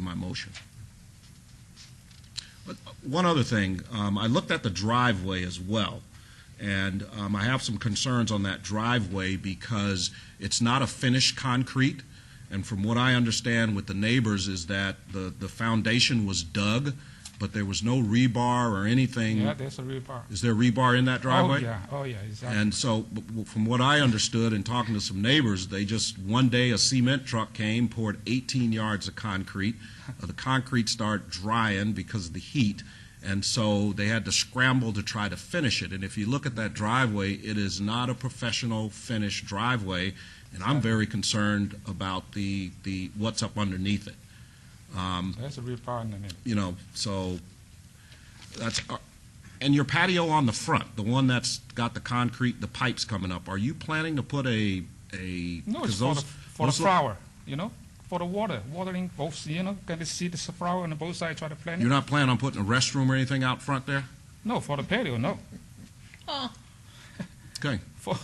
my motion. But uh, one other thing, um, I looked at the driveway as well, and um, I have some concerns on that driveway because it's not a finished concrete, and from what I understand with the neighbors is that the, the foundation was dug, but there was no rebar or anything. Yeah, that's a real bar. Is there rebar in that driveway? Oh, yeah, oh, yeah, exactly. And so, b- w- from what I understood and talking to some neighbors, they just, one day, a cement truck came, poured 18 yards of concrete. Uh, The concrete started drying because of the heat, and so they had to scramble to try to finish it. And if you look at that driveway, it is not a professional finished driveway, and I'm very concerned about the, the, what's up underneath it, That's a real bar in the middle. you know, so that's, uh, and your patio on the front, the one that's got the concrete, the pipes coming up, are you planning to put a, a? No, 'cause it's for the, those- for the those look- flower, you know, for the water, watering both, you know, can you see the flower on both sides, try to plant You're it? not planning on putting a restroom or anything out front there? No, for the patio, no. Okay, For,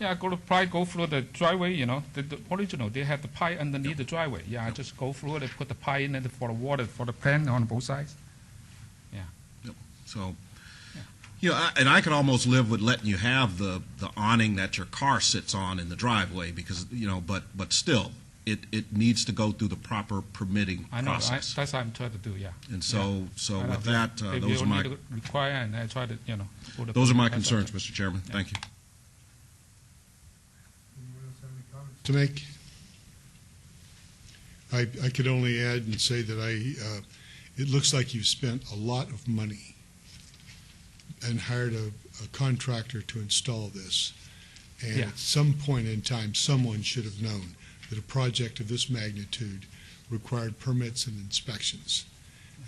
yeah, I go to, probably go through the driveway, you know, the, the original, they had the pipe underneath the driveway. Yeah, I just go through it and put the pipe in it for the water, for the plant on both sides. so, you know, I- and I could almost live with letting you have the, the awning that your car sits on in the driveway because, you know, but, but still, it, it needs to go through the proper permitting I know, I, process. that's what I'm trying to do, yeah. And so, so I know. with that, uh, If those you are my. need to Require, and I try to, you know. put the- Those are my that's what I concerns, do. Mr. Chairman. Thank you. Anyone else have any comments? to make. I, I could only add and say that I, uh, it looks like you've spent a lot of money and hired a, a contractor to install this. And Yeah. at some point in time, someone should have known that a project of this magnitude required permits and inspections.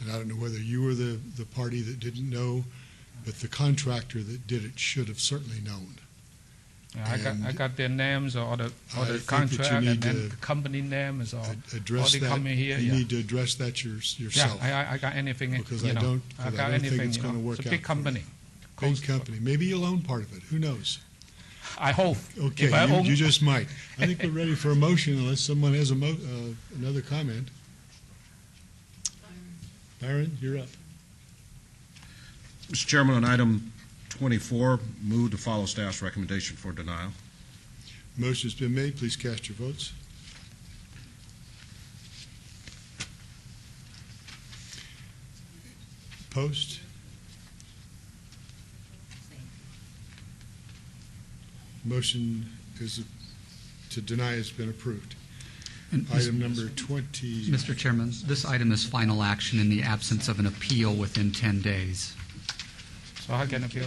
And I don't know whether you were the, the party that didn't know, but the contractor that did it should have certainly known. Yeah, I got, I And- got their names or the, or the I think that you contract and need then to uh, company names or, Ad- or Address they that. come in here, You yeah. need to address that your- Yeah, yourself. I- I, I got anything, Because you I know, don't- I because got I don't think anything, it's you gonna know, work it's a out big for you. company. Big Coast- company. Maybe you'll own part of it. Who knows? I hope. Okay, If I you, own- you just might. I think we're ready for a motion unless someone has a mo, uh, another comment. Byron, you're up. Mr. Chairman, on item 24, move to follow staff's recommendation for denial. Motion's been made. Please cast your votes. Post? Motion is, to deny has been approved. And Mis- Item number 20. Mr. Chairman, this item is final action in the absence of an appeal within 10 days. So how can I appeal?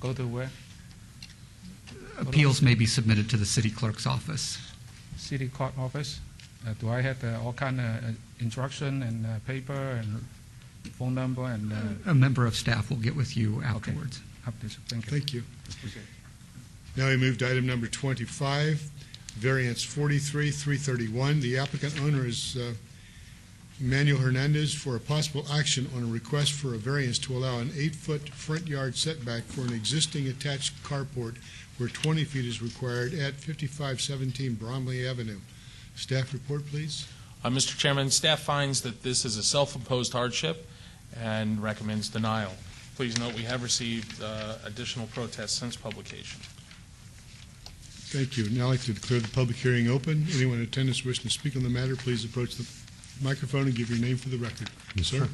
Go to where? Appeals may be submitted to the city clerk's office. City court office? Uh, Do I have uh, all kind of uh, instruction and uh, paper and phone number and, uh, A member of staff will get with you afterwards. up this- thank you. Thank you. Now we move to item number 25, variance 43, 331. The applicant owner is uh, Manuel Hernandez for a possible action on a request for a variance to allow an eight-foot front yard setback for an existing attached carport where 20 feet is required at 5517 Bromley Avenue. Staff report, please. Uh, Mr. Chairman, staff finds that this is a self-imposed hardship and recommends denial. Please note, we have received uh, additional protests since publication. Thank you. Now I'd like to declare the public hearing open. Anyone in attendance wishing to speak on the matter, please approach the microphone and give your name for the record. Sir?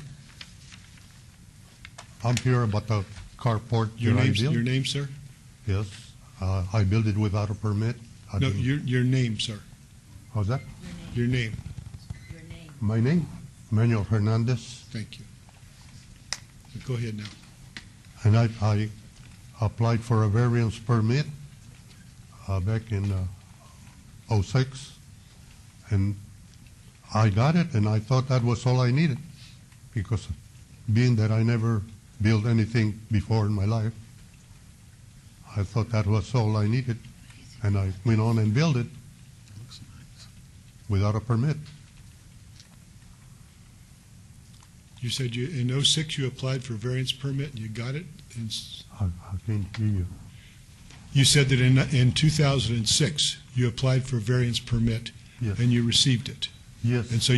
I'm here about the carport Your that I name, built. your name, sir? Yes, uh, I built it without a permit. I No, didn't- your, your name, sir. How's that? Your name. your name. My name, Manuel Hernandez, Thank you. Go ahead now. and I, I applied for a variance permit uh, back in uh, '06, and I got it, and I thought that was all I needed, because being that I never built anything before in my life, I thought that was all I needed, and I went on and built it. without a permit. You said you, in '06, you applied for variance permit and you got it? in s- I, I can't hear you. You said that in, in 2006, you applied for variance permit Yes. and you received it. Yes. And so